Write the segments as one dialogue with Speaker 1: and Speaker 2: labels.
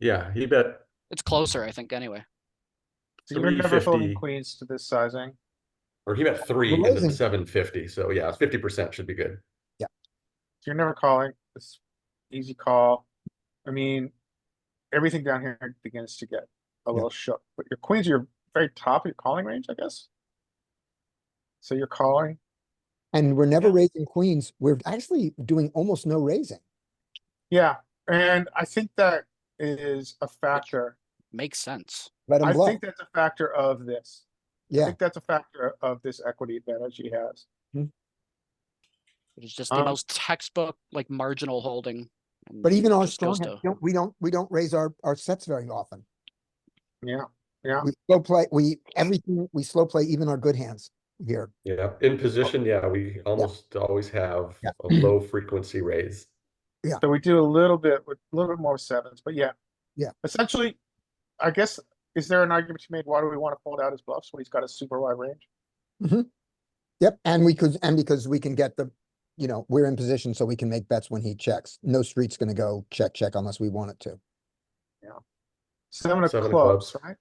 Speaker 1: Yeah, he bet
Speaker 2: It's closer, I think, anyway.
Speaker 3: So you're never folding
Speaker 1: 350.
Speaker 3: queens to this sizing.
Speaker 1: or he bet three
Speaker 4: We're
Speaker 1: into
Speaker 4: raising.
Speaker 1: the seven fifty. So yeah, fifty percent should be good.
Speaker 3: You're never calling. It's easy call. I mean, everything down here begins to get a little shook, but your queens are your very top of your calling range, I guess. So you're calling.
Speaker 4: And we're never raising queens. We're actually doing almost no raising.
Speaker 3: Yeah, and I think that is a factor.
Speaker 2: Makes sense.
Speaker 4: Let
Speaker 3: I
Speaker 4: him bluff.
Speaker 3: think that's a factor of this. I
Speaker 4: Yeah,
Speaker 3: think that's a factor of this equity advantage he has.
Speaker 2: It's just the
Speaker 3: Um,
Speaker 2: most textbook, like marginal holding. and
Speaker 4: Uh, but even
Speaker 2: it
Speaker 4: our
Speaker 2: just goes
Speaker 4: strong,
Speaker 2: to-
Speaker 4: hand, don't- we don't, we don't raise our, our sets very often.
Speaker 3: Yeah,
Speaker 4: We slow play, we, everything, we slow play even our good hands here.
Speaker 1: Yeah, in position, yeah, we almost always have
Speaker 4: Yeah.
Speaker 1: a low frequency raise.
Speaker 3: so we do a little bit with a little bit more sevens, but yeah.
Speaker 4: Yeah.
Speaker 3: Essentially, I guess, is there an argument you made? Why do we want to fold out his bluffs when he's got a super wide range?
Speaker 4: Yep, and we could, and because we can get the, you know, we're in position so we can make bets when he checks. No street's gonna go check, check unless we want it to.
Speaker 3: Seven of
Speaker 1: Seven of
Speaker 3: clubs,
Speaker 1: clubs.
Speaker 3: right?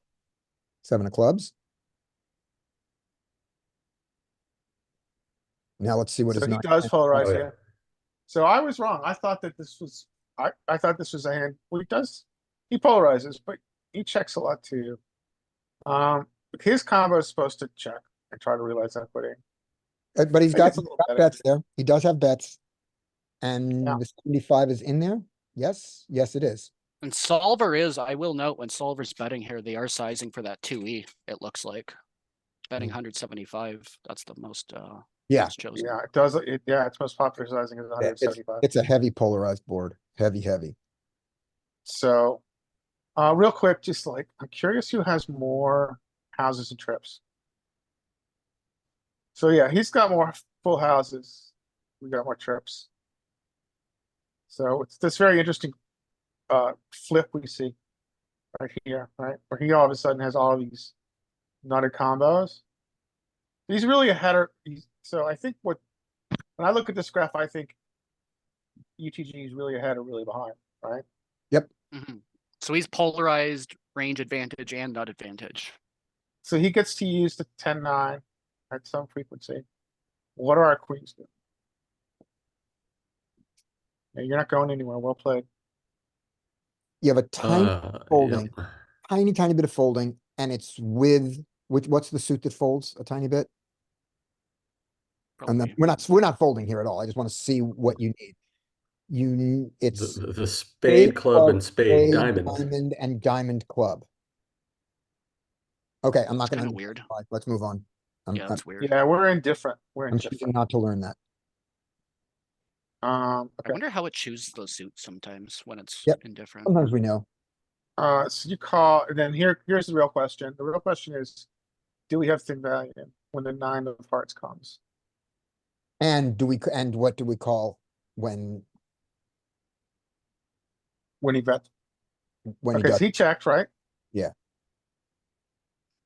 Speaker 4: Seven of clubs. Now let's see what
Speaker 3: So
Speaker 4: is
Speaker 3: he
Speaker 4: not.
Speaker 3: does
Speaker 1: Oh,
Speaker 3: polarize
Speaker 1: yeah.
Speaker 3: here. So I was wrong. I thought that this was, I, I thought this was a hand, well, he does, he polarizes, but he checks a lot too. Um, his combo is supposed to check and try to realize equity.
Speaker 4: Uh, But he's
Speaker 3: I
Speaker 4: got
Speaker 3: guess a
Speaker 4: some
Speaker 3: little
Speaker 4: got
Speaker 3: better.
Speaker 4: bets there. He does have bets. And
Speaker 3: Yeah.
Speaker 4: the seventy-five is in there? Yes, yes, it is.
Speaker 2: And solver is, I will note, when solver's betting here, they are sizing for that two E, it looks like. Betting hundred seventy-five, that's the most, uh.
Speaker 4: Hmm. Yeah,
Speaker 2: most chosen.
Speaker 3: Yeah, it does, it, yeah, it's most popular sizing is hundred and seventy-five.
Speaker 4: It's a heavy polarized board, heavy, heavy.
Speaker 3: So, uh, real quick, just like, I'm curious who has more houses and trips. So yeah, he's got more full houses. We got more trips. So it's this very interesting, uh, flip we see right here, right? Where he all of a sudden has all these nutted combos. He's really a header. He's, so I think what, when I look at this graph, I think UTG is really ahead or really behind, right?
Speaker 2: Mhm. So he's polarized, range advantage and nut advantage.
Speaker 3: So he gets to use the 10 9 at some frequency. What are our queens doing? Yeah, You're not going anywhere. Well played.
Speaker 4: You have a tiny,
Speaker 1: Uh,
Speaker 4: folding.
Speaker 1: yeah.
Speaker 4: tiny, tiny bit of folding and it's with, with, what's the suit that folds a tiny bit? And
Speaker 2: probably.
Speaker 1: Oh,
Speaker 4: then, we're not, we're not folding here at all. I just wanna see what you need. You, n-
Speaker 1: The,
Speaker 4: it's
Speaker 1: the- the spade club
Speaker 4: club,
Speaker 1: and spade
Speaker 4: spade,
Speaker 1: diamonds.
Speaker 4: diamond and diamond club. Okay, I'm not
Speaker 2: It's
Speaker 4: gonna,
Speaker 2: Kinda weird.
Speaker 4: unify. let's move on. I'm-
Speaker 2: Yeah,
Speaker 4: I'm-
Speaker 2: that's weird.
Speaker 3: Yeah, we're indifferent. We're
Speaker 4: I'm choosing
Speaker 3: indifferent.
Speaker 4: not to learn that.
Speaker 3: Um,
Speaker 2: I
Speaker 3: okay.
Speaker 2: wonder how it chooses those suits sometimes when it's
Speaker 4: Yep.
Speaker 2: indifferent.
Speaker 4: Sometimes we know.
Speaker 3: Uh, so you call, and then here, here's the real question. The real question is, do we have thin value when the nine of hearts comes?
Speaker 4: And do we, c- and what do we call when,
Speaker 3: When he bet,
Speaker 4: when he
Speaker 3: okay,
Speaker 4: does?
Speaker 3: so he checked, right?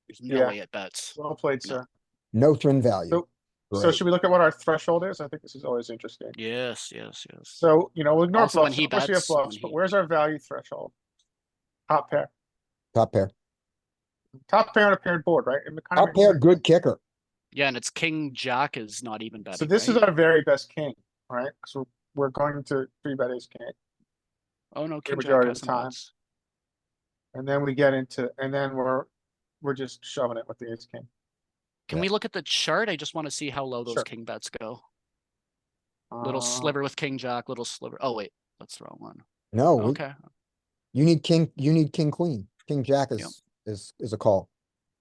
Speaker 2: There's no
Speaker 3: yeah.
Speaker 2: way it bets.
Speaker 3: Well played, sir.
Speaker 4: No thin value.
Speaker 3: So- So
Speaker 4: Great.
Speaker 3: should we look at what our threshold is? I think this is always interesting.
Speaker 2: Yes, yes, yes.
Speaker 3: So, you know, we'll ignore
Speaker 2: Also, when
Speaker 3: bluffs.
Speaker 2: he
Speaker 3: Of course we have
Speaker 2: bets, when
Speaker 3: bluffs, but
Speaker 2: he-
Speaker 3: where's our value threshold? Top pair.
Speaker 4: Top pair.
Speaker 3: Top pair on a paired board, right? It kind of
Speaker 4: Top
Speaker 3: makes
Speaker 4: pair,
Speaker 3: sense.
Speaker 4: good kicker.
Speaker 2: Yeah, and it's king jack is not even betting.
Speaker 3: So this is
Speaker 2: right?
Speaker 3: our very best king, right? Because we're, we're going to three bet ace king.
Speaker 2: Oh no, king jack
Speaker 3: majority of
Speaker 2: has
Speaker 3: the
Speaker 2: some
Speaker 3: time.
Speaker 2: bets.
Speaker 3: And then we get into, and then we're, we're just shoving it with the ace king.
Speaker 2: Can
Speaker 4: Yeah.
Speaker 2: we look at the chart? I just want to see how low those
Speaker 3: Sure.
Speaker 2: king bets go. Little
Speaker 3: Uh,
Speaker 2: sliver with king jack, little sliver. Oh wait, that's the wrong one.
Speaker 4: No, we-
Speaker 2: Okay,
Speaker 4: you need king, you need king, queen. King jack
Speaker 2: Yeah.
Speaker 4: is, is, is a call.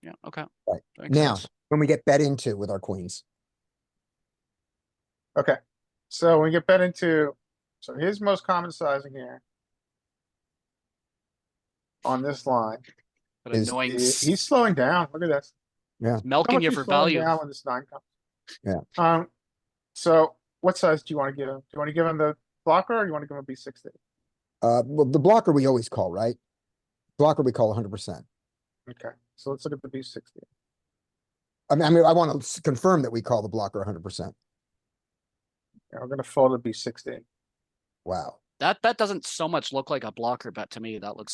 Speaker 2: yeah, okay.
Speaker 4: Right,
Speaker 2: That makes
Speaker 4: now.
Speaker 2: sense.
Speaker 4: When we get bet into with our queens.
Speaker 3: Okay, so we get bet into, so his most common sizing here. On this line,
Speaker 2: But
Speaker 4: is-
Speaker 3: i-
Speaker 2: annoying. s-
Speaker 3: he's slowing down. Look at this. How
Speaker 2: Milking
Speaker 3: much
Speaker 2: you
Speaker 3: he's
Speaker 2: for
Speaker 3: slowing
Speaker 2: value.
Speaker 3: down When this nine comes.
Speaker 4: Yeah.
Speaker 3: Um, so what size do you wanna give him? Do you wanna give him the blocker or you wanna give him a B sixty?
Speaker 4: Uh, well, the blocker we always call, right? Blocker we call hundred percent.
Speaker 3: Okay, so let's look at the B sixty.
Speaker 4: I mean, I mean, I wanna s- confirm that we call the blocker hundred percent.
Speaker 3: Yeah, we're gonna fold the B sixty.
Speaker 4: Wow.
Speaker 2: That bet doesn't so much look like a blocker bet to me. That looks